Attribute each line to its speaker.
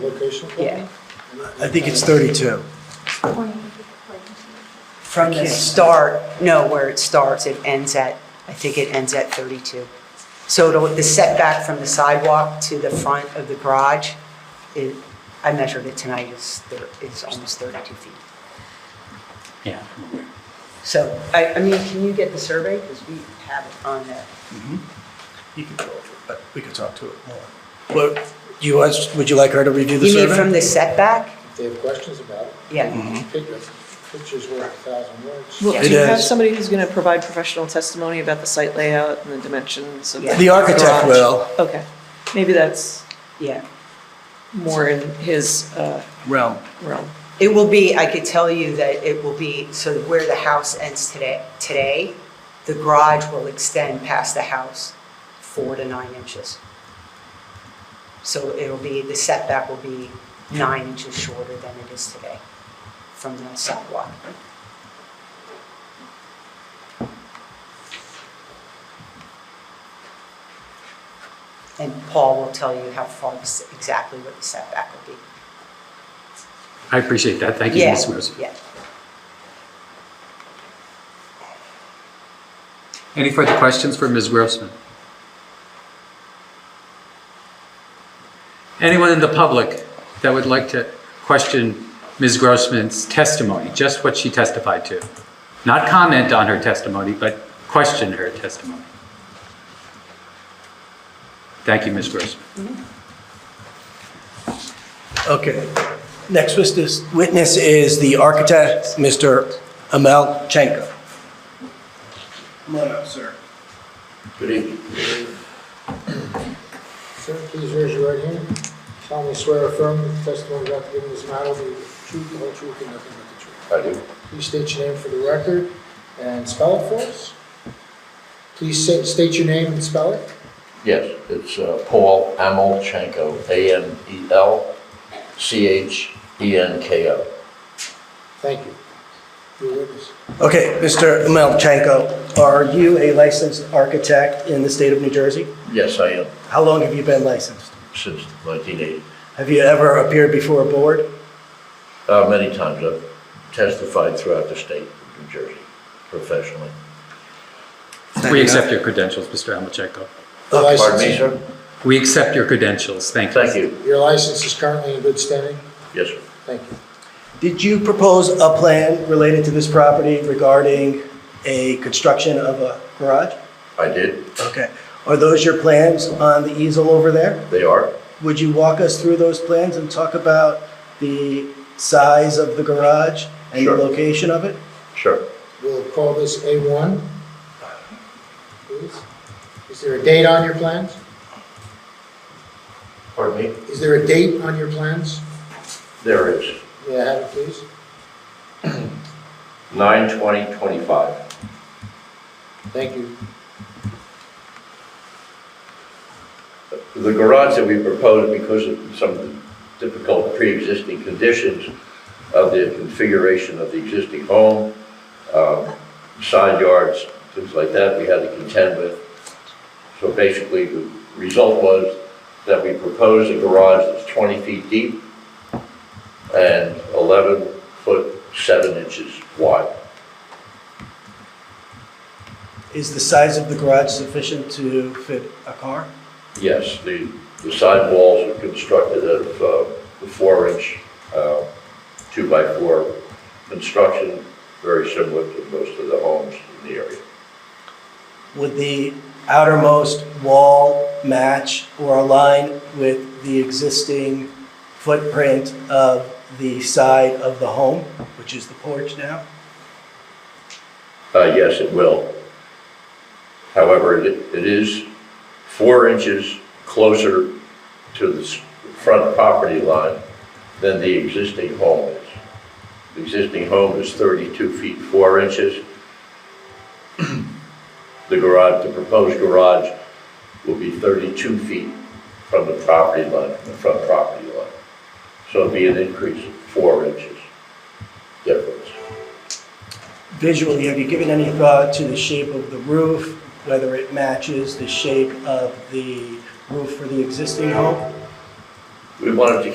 Speaker 1: Location?
Speaker 2: Yeah.
Speaker 3: I think it's 32.
Speaker 2: From the start, no, where it starts, it ends at, I think it ends at 32. So it'll, the setback from the sidewalk to the front of the garage, is I measured it tonight, is, thir- is almost 32 feet.
Speaker 4: Yeah.
Speaker 2: So, I, I mean, can you get the survey? Because we have it on the,
Speaker 3: You can go over, it, but Uh, we could talk to it more. What, you, want- would you like her to review the
Speaker 2: you mean from
Speaker 3: survey?
Speaker 2: the setback?
Speaker 1: If they have questions about it,
Speaker 2: Yeah.
Speaker 3: Mm-hmm.
Speaker 1: pictures, pictures worth a thousand words.
Speaker 5: Well,
Speaker 2: Yeah.
Speaker 5: do you
Speaker 3: It
Speaker 5: have
Speaker 3: is.
Speaker 5: somebody who's going to provide professional testimony about the site layout and the dimensions of the
Speaker 2: Yeah.
Speaker 5: garage?
Speaker 3: The architect will.
Speaker 5: Okay, maybe that's
Speaker 2: Yeah.
Speaker 5: more in his uh,
Speaker 3: Realm.
Speaker 5: realm.
Speaker 2: It will be, I could tell you that it will be, so where the house ends today, today, the garage will extend past the house four to nine inches. So it'll be, the setback will be nine inches shorter than it is today from the sidewalk. And Paul will tell you how far the s- exactly what the setback will be.
Speaker 4: I appreciate that. Thank you,
Speaker 2: Yeah,
Speaker 4: Ms. Rose.
Speaker 2: Yeah.
Speaker 4: Any further questions for Ms. Grossman? Anyone in the public that would like to question Ms. Grossman's testimony, just what she testified to? Not comment on her testimony, but question her testimony. Thank you, Ms. Grossman.
Speaker 3: Okay. Next witness, witness is the architect, Mr. Amel Chenko. Come on up, sir.
Speaker 6: Good evening.
Speaker 1: Sir, please raise your right hand. Solemnly swear or affirm that the testimony about to give in this matter will be the truth, the whole truth, and nothing but the truth.
Speaker 6: I do.
Speaker 1: Please state your name for the record and spell it for us. Please sa- state your name and spell it.
Speaker 6: Yes, it's uh, Paul Amelchenko, E A-M-E-L-C-H-E-N-K-O.
Speaker 1: Thank you. Your witness.
Speaker 3: Okay, Mr. Amel Chenko, are you a licensed architect in the state of New Jersey?
Speaker 6: Yes, I am,
Speaker 3: How long have you been licensed?
Speaker 6: since 1980.
Speaker 3: Have you ever appeared before a board?
Speaker 6: Uh, Many times I've testified throughout the state of New Jersey professionally.
Speaker 4: We accept your credentials, Mr. Amachenko.
Speaker 1: Your
Speaker 6: Uh, Pardon me,
Speaker 1: license-
Speaker 6: sir?
Speaker 4: We accept your credentials. Thank you.
Speaker 6: Thank you.
Speaker 1: Your license is currently in good standing?
Speaker 6: Yes, sir.
Speaker 1: Thank you.
Speaker 3: Did you propose a plan related to this property regarding a construction of a garage?
Speaker 6: I did.
Speaker 3: Okay. Are those your plans on the easel over there?
Speaker 6: They are.
Speaker 3: Would you walk us through those plans and talk about the size of the garage and the
Speaker 6: Sure.
Speaker 3: location of it?
Speaker 6: Sure.
Speaker 1: We'll call this A1. Please. Is there a date on your plans?
Speaker 6: Pardon me?
Speaker 1: Is there a date on your plans?
Speaker 6: There is.
Speaker 1: May I have it, please?
Speaker 6: 9/20/25.
Speaker 1: Thank you.
Speaker 6: The garage that we proposed, because of some of the difficult pre-existing conditions of the configuration of the existing home, um, side yards, things like that, we had to contend with. So basically, the result was that we proposed a garage that's 20 feet deep and 11 foot 7 inches wide.
Speaker 3: Is the size of the garage sufficient to fit a car?
Speaker 6: Yes, the, the side walls are constructed of uh, the four-inch, uh, two-by-four construction, very similar to most of the homes in the area.
Speaker 3: Would the outermost wall match or align with the existing footprint of the side of the home, which is the porch now?
Speaker 6: Uh, Yes, it will. However, it it is four inches closer to the s- front property line than the existing home is. The existing home is 32 feet 4 inches. The garage, the proposed garage will be 32 feet from the property line, from the front property line. So it'll be an increase of 4 inches difference.
Speaker 3: Visually, have you given any thought to the shape of the roof, whether it matches the shape of the roof for the existing home?
Speaker 6: We wanted to